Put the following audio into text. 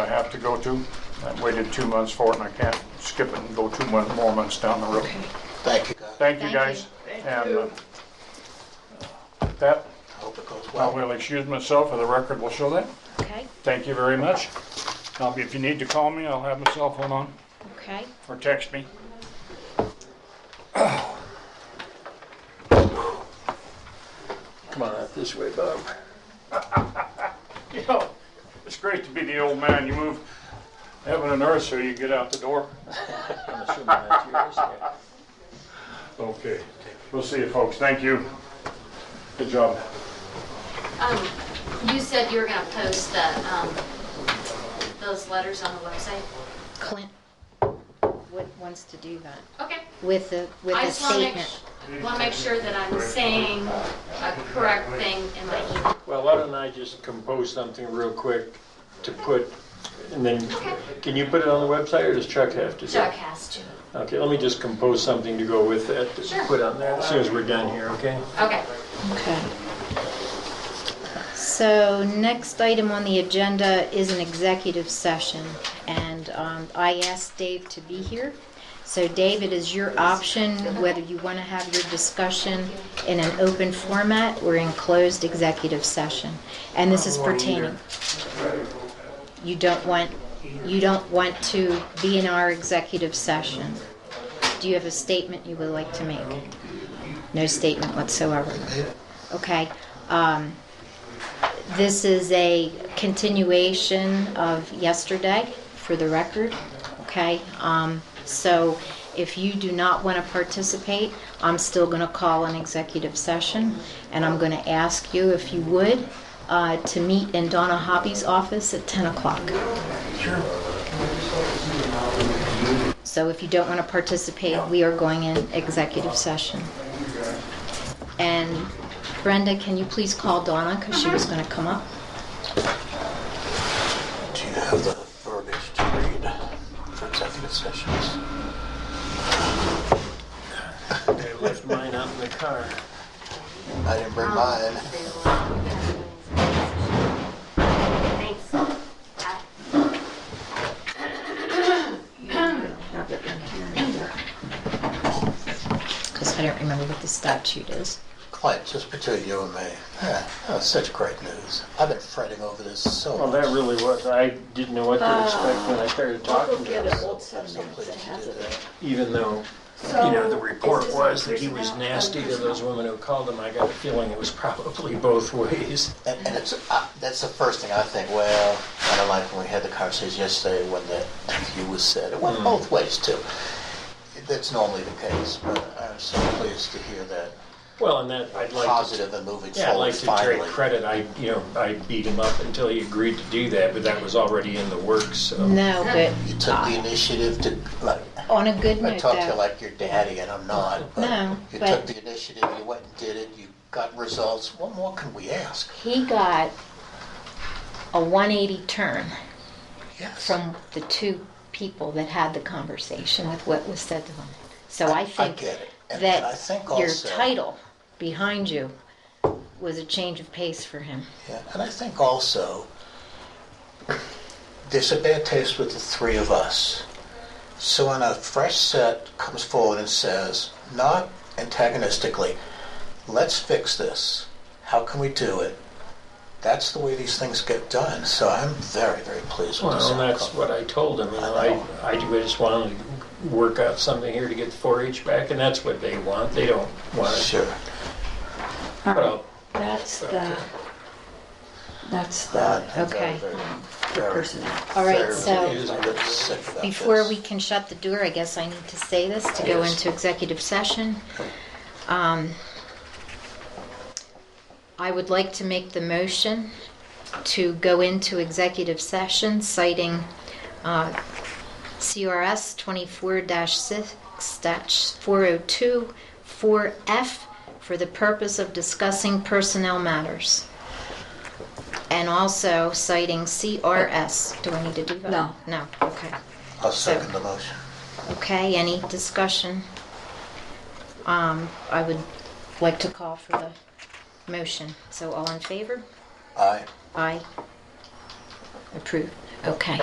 I have to go to. I waited two months for it and I can't skip it and go two mon- more months down the road. Thank you, guys. Thank you Thank guys. you. And uh, with that, I hope it goes I well. will excuse myself, or the record will show that. Okay, Thank you very much. Now, if you need to call me, I'll have my cell phone on okay. or text me. Come on, out this way, Bob. You know, it's great to be the old man. You move heaven and earth so you get out the door. I'm assuming that's yours. yeah. Okay. We'll see you folks. Thank you. Good job. Um, you said you were gonna post the, um, those letters on the website? Clint would- wants to do that Okay. with the, with I a just wanna make, statement. wanna make sure that I'm saying a correct thing in my email. Well, why don't I just compose something real quick to put, and then, can you put it on the website, or does Chuck have to? do it? Chuck has to. Okay, let me just compose something to go with that, to Sure. put on there as soon as we're done here, okay? Okay. Okay. So next item on the agenda is an executive session, and um, I asked Dave to be here. So Dave, it is your option whether you want to have your discussion in an open format or in closed executive session. And this is pertaining. You don't want, you don't want to be in our executive session. Do you have a statement you would like to make? No statement whatsoever. Okay. um, This is a continuation of yesterday, for the record, okay? Um, So if you do not want to participate, I'm still going to call an executive session, and I'm going to ask you, if you would, uh, to meet in Donna Hobby's office at 10 o'clock. So if you don't want to participate, we are going in executive session. And Brenda, can you please call Donna, because she was going to come up? Do you have the verbiage to read for executive sessions? I left mine out in the car. I didn't bring mine. Thanks. Because I don't remember what the statute is. Clint, just between you and me, yeah, that was such great news. I've been fretting over this so Well, much. that really was, I didn't know what Ah. to expect when I started talking to him, I'm so pleased you did that. even though, you know, the report was that he was nasty to those women who called him, I got a feeling it was probably both ways. And, and it's, uh, that's the first thing I think, well, kind of like when we had the conversation yesterday when the you was said, it went Hmm. both ways too. That's normally the case, but I'm so pleased to hear that Well, and that, I'd like to positive and moving Yeah, I'd forward like to take finally. credit, I, you know, I beat him up until he agreed to do that, but that was already in the works, so. No, but You took the initiative to, like, on a good I note, talk to you though, like your daddy, and I'm not, No, but you but- took the initiative, you went and did it, you got results. What more can we ask? he got a 180 turn Yes. from the two people that had the conversation with what was said to him. So I I think get it. And and I that think your also. title behind you was a change of pace for him. Yeah, and I think also, there's a bad taste with the three of us. So when a fresh set comes forward and says, not antagonistically, let's fix this. How can we do it? That's the way these things get done. So I'm very, very pleased with Well, and this that's outcome. what I told him, you know, I, I do- I just wanted to work out something here to get the four H back, and that's what they want, they don't want it. Sure. All But right, I'll- that's the, that's Uh, the, I'm very, Okay. very, the very- personnel. All right, very so pleased. I'm really sick about Before this. we can shut the door, I guess I need to say this to go into executive session. Um, I would like to make the motion to go into executive session citing uh, CRS 24-6 Stat 402 4F for the purpose of discussing personnel matters. And also citing CRS. Do I need to do that? No. No, okay. I'll second the motion. Okay, any discussion? Um, I would like to call for the motion. So all in favor? Aye. Aye. Approved. Okay.